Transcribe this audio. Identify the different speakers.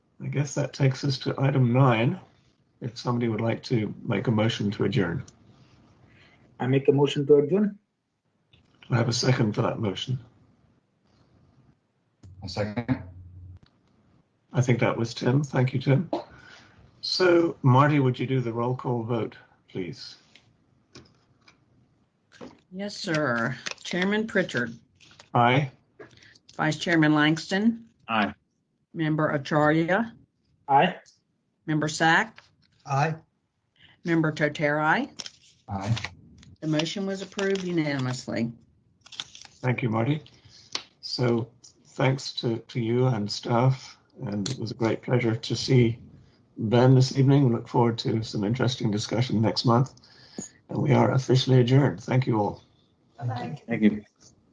Speaker 1: I guess that takes us to item nine. If somebody would like to make a motion to adjourn,
Speaker 2: I make a motion to adjourn.
Speaker 1: I have a second for that motion.
Speaker 3: A second.
Speaker 1: I think that was Tim. Thank you, Tim. So Marty, would you do the roll call vote, please?
Speaker 4: Yes, sir. Chairman Pritchard,
Speaker 1: Aye.
Speaker 4: Vice Chairman Langston.
Speaker 5: Aye.
Speaker 4: Member Acharya,
Speaker 2: Aye.
Speaker 4: Member Sack,
Speaker 6: Aye.
Speaker 4: Member Toterai.
Speaker 3: Aye.
Speaker 4: The motion was approved unanimously.
Speaker 1: Thank you, Marty. So thanks to, to you and staff, and it was a great pleasure to see Ben this evening. We look forward to some interesting discussion next month. And we are officially adjourned. Thank you all.
Speaker 6: Thank you.
Speaker 5: Thank you.